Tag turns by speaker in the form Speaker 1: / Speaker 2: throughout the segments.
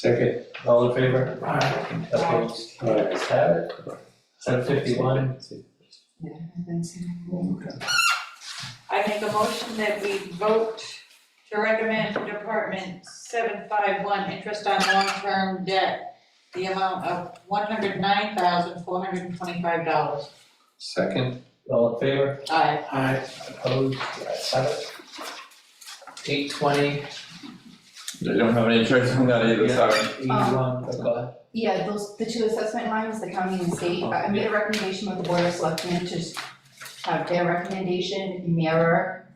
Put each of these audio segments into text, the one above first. Speaker 1: Second.
Speaker 2: All in favor? Aye. Opposed? Ayes have it. Seven fifty-one,
Speaker 3: Yeah, that's it.
Speaker 4: I make a motion that we vote to recommend to Department seven five one, interest on long-term debt, the amount of one hundred nine thousand, four hundred and twenty-five dollars.
Speaker 1: Second.
Speaker 2: all in favor?
Speaker 4: Aye.
Speaker 2: Aye. Opposed? Ayes have it. Eight twenty,
Speaker 5: They don't have any choice on that either, sorry.
Speaker 2: eighty-one, oh god.
Speaker 3: Yeah, those, the two assessment lines, the county and state, I I made a recommendation with the board of selectmen to s- have their recommendation mirror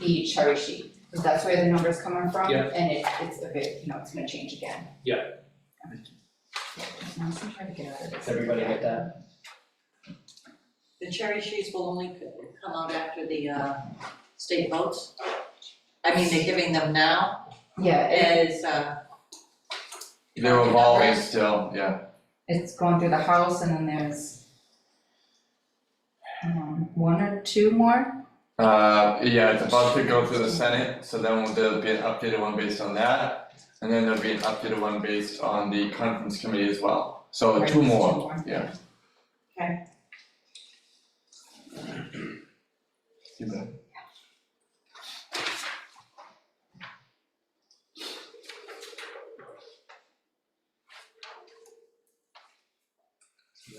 Speaker 3: the cherry sheet. Because that's where the number's coming from,
Speaker 2: Yeah.
Speaker 3: and it, it's a bit, you know, it's gonna change again.
Speaker 2: Yeah.
Speaker 3: Now, I'm still trying to get out of this.
Speaker 2: Does everybody get that?
Speaker 4: The cherry sheets will only c- come out after the, uh, state votes. I mean, they're giving them now
Speaker 3: Yeah, it,
Speaker 4: as, uh,
Speaker 5: They're evolving still, yeah.
Speaker 3: it's going through the house and then there's um, one or two more,
Speaker 5: Uh, yeah, it's about to go through the Senate, so then there'll be an updated one based on that. And then there'll be an updated one based on the conference committee as well. So Oh,
Speaker 3: Right,
Speaker 5: two
Speaker 3: there's two
Speaker 5: more,
Speaker 3: more.
Speaker 5: yeah.
Speaker 4: Okay.
Speaker 5: You bet.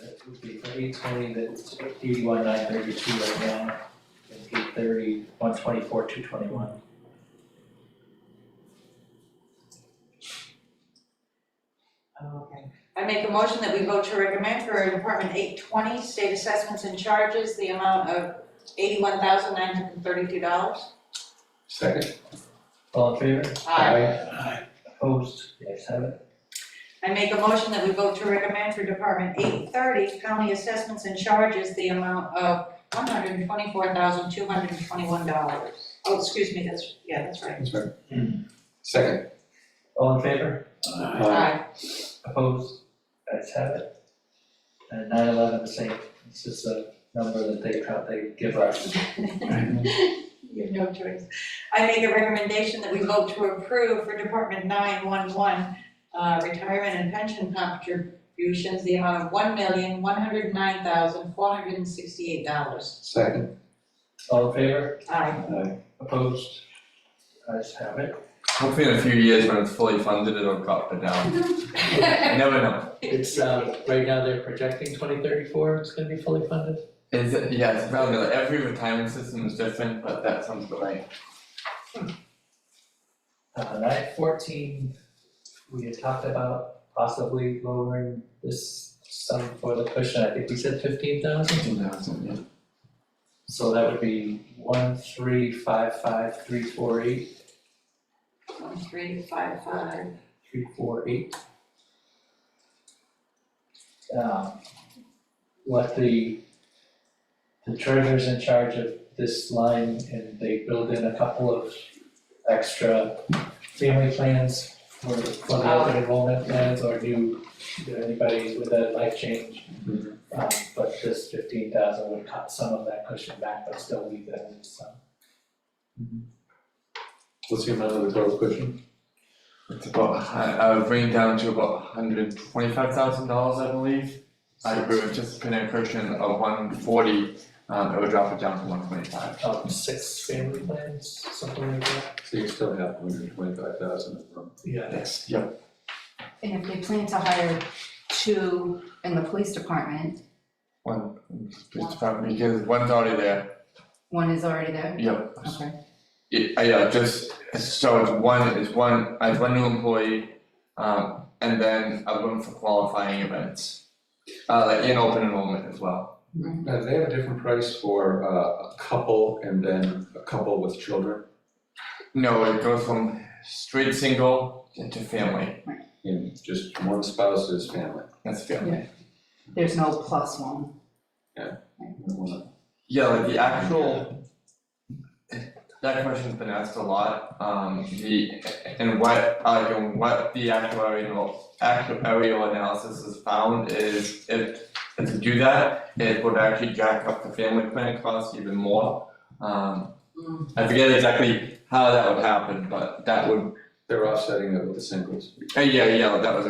Speaker 2: That would be for eight twenty, that's eighty-one, nine thirty-two right now. And eight thirty, one twenty-four, two twenty-one.
Speaker 4: Okay. I make a motion that we vote to recommend for Department eight twenty, state assessments and charges, the amount of eighty-one thousand nine hundred and thirty-two dollars.
Speaker 1: Second.
Speaker 2: All in favor?
Speaker 4: Aye.
Speaker 2: Aye. Opposed? Ayes have it.
Speaker 4: I make a motion that we vote to recommend for Department eight thirty, county assessments and charges, the amount of one hundred and twenty-four thousand two hundred and twenty-one dollars. Oh, excuse me, that's, yeah, that's right.
Speaker 1: That's right. Second.
Speaker 2: All in favor?
Speaker 4: Aye.
Speaker 2: Opposed? Ayes have it. And nine eleven, the same, it's just a number that they count, they give us.
Speaker 4: You have no choice. I make a recommendation that we vote to approve for Department nine one one, uh, retirement and pension contributions, the amount of one million, one hundred nine thousand, four hundred and sixty-eight dollars.
Speaker 1: Second.
Speaker 2: All in favor?
Speaker 4: Aye.
Speaker 2: Opposed? Ayes have it.
Speaker 5: Hopefully in a few years when it's fully funded, it'll drop it down. You Never know.
Speaker 2: It's, um, right now they're projecting twenty thirty-four, it's gonna be fully funded.
Speaker 5: Is it, yeah, it's about, like, every retirement system is different, but that sounds about right.
Speaker 2: Uh, nine fourteen, we had talked about possibly lowering this sum for the cushion, I think we said fifteen thousand.
Speaker 5: Fifteen thousand, yeah.
Speaker 2: So that would be one, three, five, five, three, four, eight,
Speaker 4: One, three, five, five.
Speaker 2: three, four, eight. Um, what the, the treasurer's in charge of this line and they build in a couple of extra family plans for, for the open enrollment plans or new, you know, anybody with a life change. Um, but this fifteen thousand would cut some of that cushion back, but still leave them in some.
Speaker 1: What's the amount of the total cushion?
Speaker 5: It's about, a hun- uh, bring down to about hundred twenty-five thousand dollars, I believe. I agree with just putting a cushion of one forty, um, it would drop it down to one twenty-five.
Speaker 2: um, six family plans, something like that.
Speaker 1: So you still have hundred and twenty-five thousand from.
Speaker 2: Yeah.
Speaker 5: Yes, yep.
Speaker 3: and if they plan to hire two in the police department,
Speaker 5: One, police department, because one's already there,
Speaker 3: one is already there,
Speaker 5: yep.
Speaker 3: okay.
Speaker 5: Yeah, uh, yeah, just, so it's one, it's one, I have one new employee, um, and then a room for qualifying events. Uh, like in open enrollment as well.
Speaker 1: Now, do they have a different price for uh, a couple and then a couple with children
Speaker 5: No, it goes from straight single to family,
Speaker 1: in just one spouse's family.
Speaker 5: that's family.
Speaker 3: There's no plus one.
Speaker 5: Yeah, like the actual. That question's been asked a lot, um, the, and what, uh, and what the actuarial, actuarial analysis has found is if. If you do that, it would actually jack up the family plan cost even more, um,
Speaker 4: Mm.
Speaker 5: I forget exactly how that would happen, but that would
Speaker 6: They're offsetting it with the singles.
Speaker 1: Uh, yeah, yeah, that was